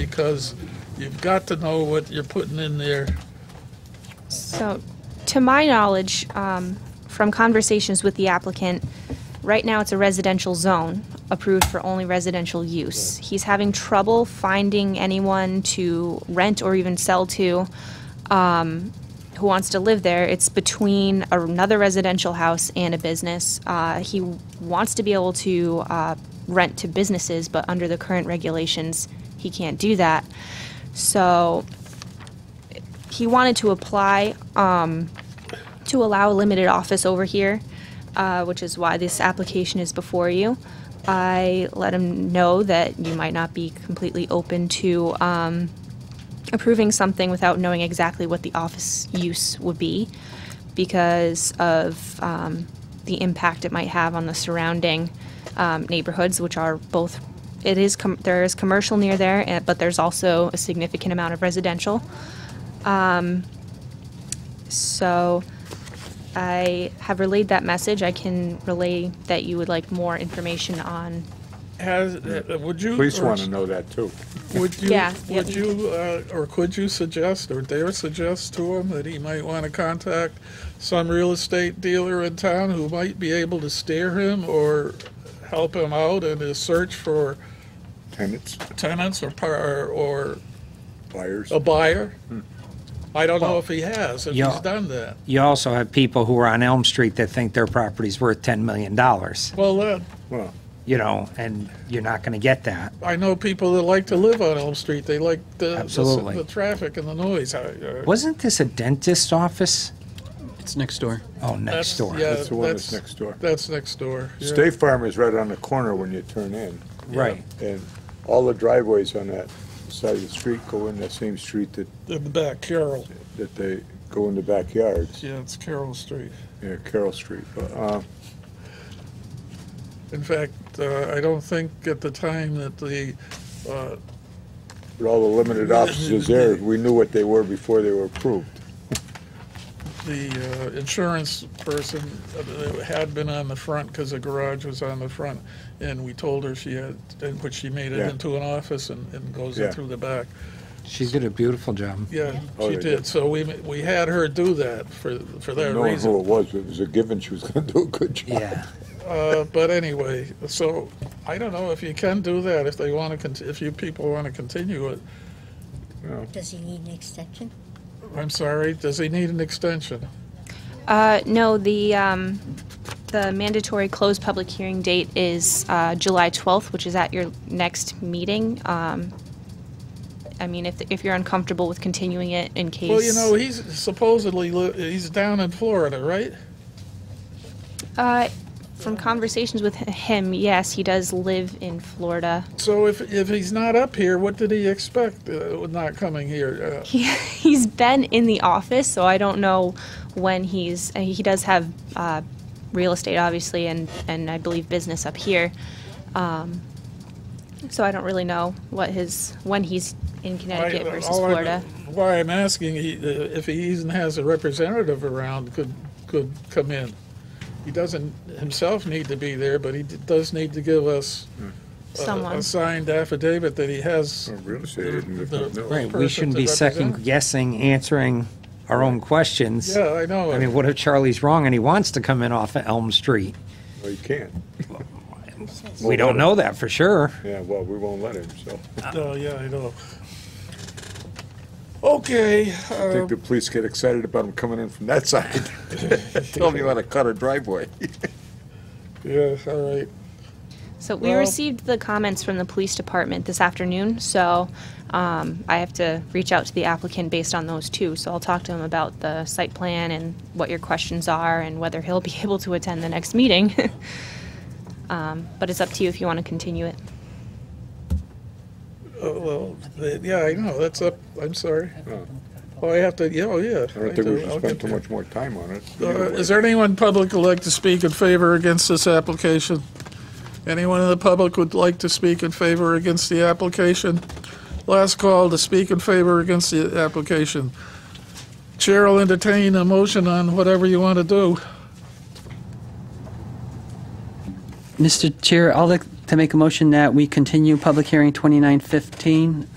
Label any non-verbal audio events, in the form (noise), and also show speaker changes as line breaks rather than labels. because you've got to know what you're putting in there.
So, to my knowledge, um, from conversations with the applicant, right now it's a residential zone, approved for only residential use. He's having trouble finding anyone to rent or even sell to um, who wants to live there. It's between another residential house and a business. Uh, He wants to be able to uh, rent to businesses, but under the current regulations, he can't do that. So, he wanted to apply um, to allow a limited office over here, uh, which is why this application is before you. I let him know that you might not be completely open to um, approving something without knowing exactly what the office use would be because of um, the impact it might have on the surrounding um, neighborhoods, which are both. It is com- there is commercial near there, eh, but there's also a significant amount of residential. So I have relayed that message. I can relay that you would like more information on.
Has, uh, would you?
Police
or
want to know that too.
Would you,
Yeah, yeah.
would you, uh, or could you suggest, or dare suggest to him that he might want to contact some real estate dealer in town who might be able to steer him or help him out in his search for
Tenants,
tenants or, par- or
buyers.
a buyer? I don't know if he has, if he's
Yeah.
done that.
You also have people who are on Elm Street that think their property's worth $10 million,
Well, then,
Well,
you know, and you're not going to get that.
I know people that like to live on Elm Street. They like the, the,
Absolutely.
the traffic and the noise. I- uh, I-
Wasn't this a dentist's office?
It's next door.
Oh,
that's-
next door.
yeah,
That's the one that's next door.
That's next door. yeah.
State Farm is right on the corner when you turn in,
Right.
and all the driveways on that side of the street go in that same street that,
In the back, Carroll.
that they go in the backyards,
Yeah, it's Carroll Street.
near Carroll Street. But, uh,
In fact, uh, I don't think at the time that the, uh,
With all the
(laughs)
limited offices there, we knew what they were before they were approved.
the uh, insurance person uh, had been on the front because the garage was on the front, and we told her she had, and- but she made it
Yeah.
into an office and, and goes in
Yeah.
through the back.
She did a beautiful job.
Yeah,
Oh,
she
they
did.
did.
So we, ma- we had her do that for, for that
Knowing
reason.
who it was, it was a given she was gonna do a good job.
Yeah.
Uh, But anyway, so I don't know if you can do that, if they want to, if you people want to continue it.
Does he need an extension?
I'm sorry, does he need an extension?
Uh, no, the, um, the mandatory closed public hearing date is, uh, July 12th, which is at your next meeting. Um, I mean, if, if you're uncomfortable with continuing it in case.
Well, you know, he's supposedly, li- he's down in Florida, right?
Uh, from conversations with h- him, yes, he does live in Florida.
So if, if he's not up here, what did he expect uh, with not coming here? Uh,
He, (laughs) he's been in the office, so I don't know when he's. and He does have uh, real estate, obviously, and, and I believe business up here. Um, so I don't really know what his when he's in Connecticut
I-
versus
uh, all I-
Florida.
Why I'm asking, he, uh, if he even has a representative around, could, could come in. He doesn't himself need to be there, but he d- does need to give us a-
Someone.
a signed affidavit that he has.
Real
the-
estate
(laughs)
isn't,
the
no.
Right. We
person
shouldn't
to
be second
represent.
guessing, answering our own questions.
Yeah, I know.
I mean, what if Charlie's wrong and he wants to come in off of Elm Street?
Well, you can't.
We don't know that for sure.
Yeah, well, we won't let him, so.
Oh, yeah, I know. Okay,
I think the police get excited about him coming in from that side. (laughs) Tell me you want to cut a driveway.
yeah, all right.
So we
Well-
received the comments from the police department this afternoon, so um, I have to reach out to the applicant based on those too. So I'll talk to him about the site plan and what your questions are and whether (laughs) he'll be able to attend the next meeting. (laughs) Um, But it's up to you if you want to continue it.
Oh, well, th- yeah, I know, that's up, I'm sorry. Oh, I have to, yeah, oh, yeah.
I don't think we should
I'll get
spend too much more time on it.
there. Uh, Is there anyone public who'd like to speak in favor or against this application? Anyone in the public would like to speak in favor or against the application? Last call to speak in favor or against the application. Chair will entertain a motion on whatever you want to do.
Mr. Chair, I'd like to make a motion that we continue public hearing 2915